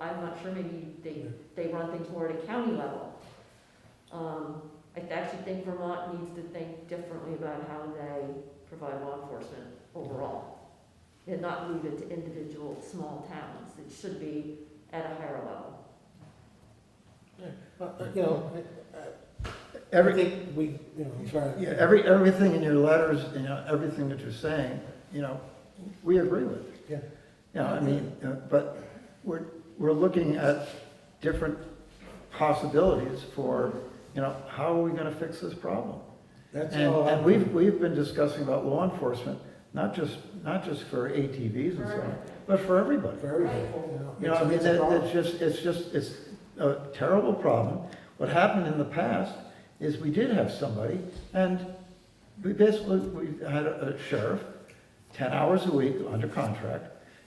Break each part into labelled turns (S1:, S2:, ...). S1: I'm not sure, maybe they, they run things more at a county level. Um, I actually think Vermont needs to think differently about how they provide law enforcement overall. And not leave it to individual small towns, it should be at a higher level.
S2: Uh, You know, everything we, you know, I'm sorry.
S3: Yeah, every, everything in your letters, you know, everything that you're saying, you know, we agree with.
S2: Yeah.
S3: You know, I mean, uh, but we're, we're looking at different possibilities for, you know, how are we gonna fix this problem?
S2: That's
S3: And,
S2: all.
S3: and we've, we've been discussing about law enforcement, not just, not just for ATVs and so on, but for everybody.
S2: Very, good,
S3: You know, I mean, that, that's just, it's just, it's a terrible problem. What happened in the past is we did have somebody, and we basically, we had a a sheriff, ten hours a week under contract,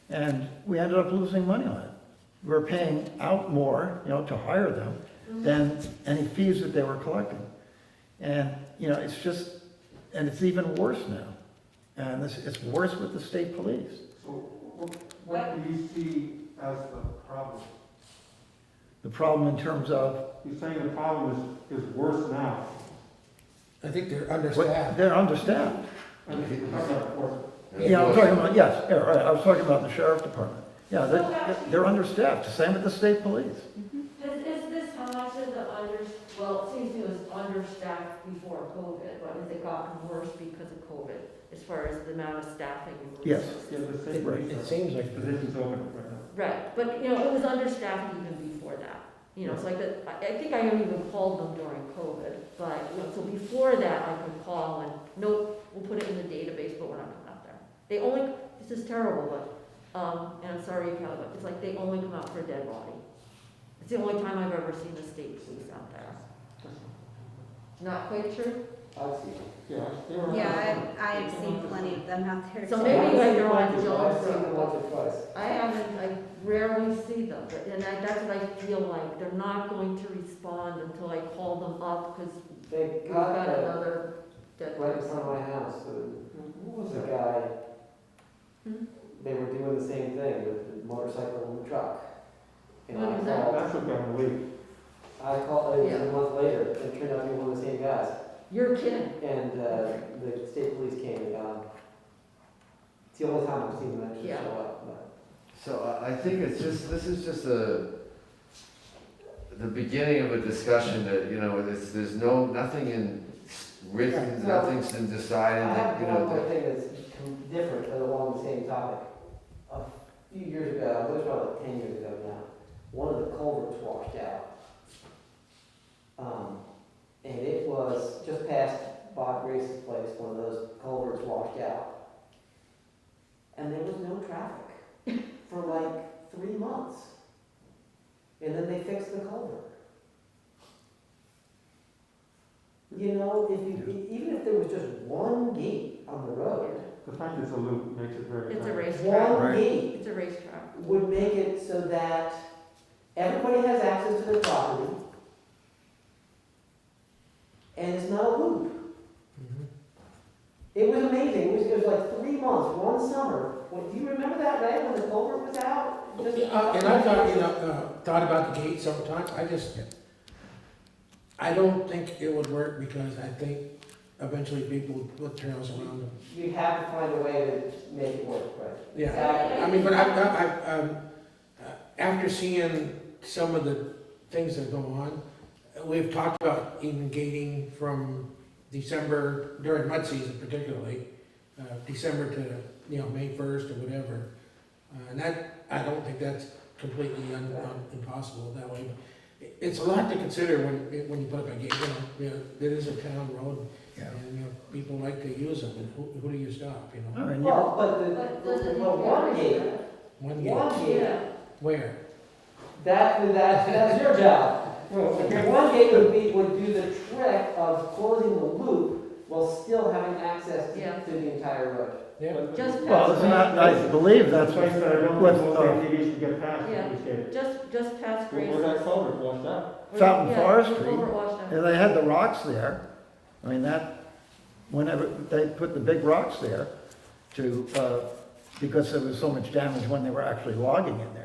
S3: and we ended up losing money on it. We were paying out more, you know, to hire them than any fees that they were collecting. And, you know, it's just, and it's even worse now. And it's, it's worse with the state police.
S4: So what, what do you see as the problem?
S3: The problem in terms of
S4: You're saying the problem is, is worse now.
S2: I think they're
S3: What-
S2: understaffed.
S3: They're understaffed.
S4: I mean, how about worse?
S3: Yeah, I'm talking about, yes, yeah, right, I was talking about the sheriff department. Yeah,
S5: So
S3: they're,
S5: actually-
S3: they're understaffed, same with the state police.
S5: Is, is this how much of the under, well, it seems to us understaffed before COVID,
S1: But has it gotten worse because of COVID, as far as the amount of staffing? and
S3: Yes.
S1: resources?
S4: Yeah, the same
S2: It it
S4: reason.
S2: seems like,
S4: Positions open right now.
S1: Right, but, you know, it was understaffed even before that, you know, it's like that, I, I think I only even called them during COVID, but, you know, so before that, I could call and, nope, we'll put it in the database, but we're not coming out there. They only, this is terrible, but, um, and I'm sorry, Kelly, but it's like they only come out for a dead body. It's the only time I've ever seen the state police out there. Not quite true?
S4: I see. Yeah. they were-
S6: Yeah, I, I have seen plenty of them out there.
S1: So
S6: too.
S1: maybe like you're on Jones Road.
S4: twice.
S1: I haven't, I rarely see them, but- and I, that's what I feel like, they're not going to respond until I call them up, because
S7: They
S1: we've
S7: got
S1: got
S7: a
S1: another dead
S7: right in
S1: person.
S7: front of my house, and who was the guy?
S1: Hmm?
S7: They were doing the same thing with the motorcycle and the truck. And
S1: What
S7: I
S1: was that?
S7: called,
S4: That's what got me leaked.
S7: I called, it was
S1: Yeah.
S7: a month later, and it turned out to be one of the same guys.
S1: You're kidding,
S7: And, uh, the state police came and got him. It's the only time I've seen them actually show
S1: Yeah.
S7: up, but.
S8: So I- I think it's just, this is just a, the beginning of a discussion that, you know, there's, there's no, nothing in written,
S7: Yeah.
S8: nothing's been
S7: I
S8: decided, that,
S7: have
S8: you know,
S7: one
S8: that.
S7: more thing that's com- different, but along the same topic. A few years ago, it was probably like ten years ago now, one of the culverts washed out. Um, and it was just past Bob Grace's place, one of those culverts washed out. And there was no traffic for like three months. And then they fixed the culvert. You know, if you, even if there was just one gate on the road,
S4: The fact it's a loop makes it very.
S1: it's a racetrack,
S7: one
S3: Right.
S7: gate
S1: it's a racetrack.
S7: would make it so that everybody has access to their property. And it's not a loop.
S2: Mhm.
S7: It was amazing, it was, it was like three months, one summer, When- do you remember that, Ray, when the culvert was out? Just-
S2: Uh, and I thought, you know, uh, thought about the gate sometimes, I just, I don't think it would work because I think eventually people would put trails around them.
S7: You'd have to find a way to make it work, right?
S2: Yeah,
S7: Exactly.
S2: I mean, but I, I, I, um, uh, after seeing some of the things that go on, uh, we've talked about even gating from December, during mud season particularly, uh, December to, you know, May first or whatever. Uh, and that, I don't think that's completely un, un- impossible that way, but it- it's a lot to consider when, when you put up a gate, you know, you know, it is a town road,
S3: Yeah.
S2: and, you know, people like to use them, and who, who do you stop, you know?
S3: I mean, you-
S7: Well, but
S1: But
S7: the,
S1: doesn't
S7: the,
S1: it
S7: well, one gate,
S2: One gate,
S7: one gate,
S1: Yeah,
S2: where?
S7: that, that, that's your job.
S4: Well, okay.
S7: One gate would be, would do the trick of closing the loop while still having access
S1: Yeah.
S7: to, to the entire road.
S2: Yeah,
S1: Just
S3: Well, it's not, I believe
S4: That's
S3: that's
S4: the place that I don't
S3: what,
S4: think most
S3: uh,
S4: ATVs should get past,
S1: Yeah.
S4: we say.
S1: just, just past Grace.
S4: Where's that culvert washed out?
S3: Fountain
S1: Yeah,
S3: Forest
S1: over
S3: Street.
S1: at Washington.
S3: and they had the rocks there. I mean, that, whenever, they put the big rocks there to, uh, because there was so much damage when they were actually logging in there.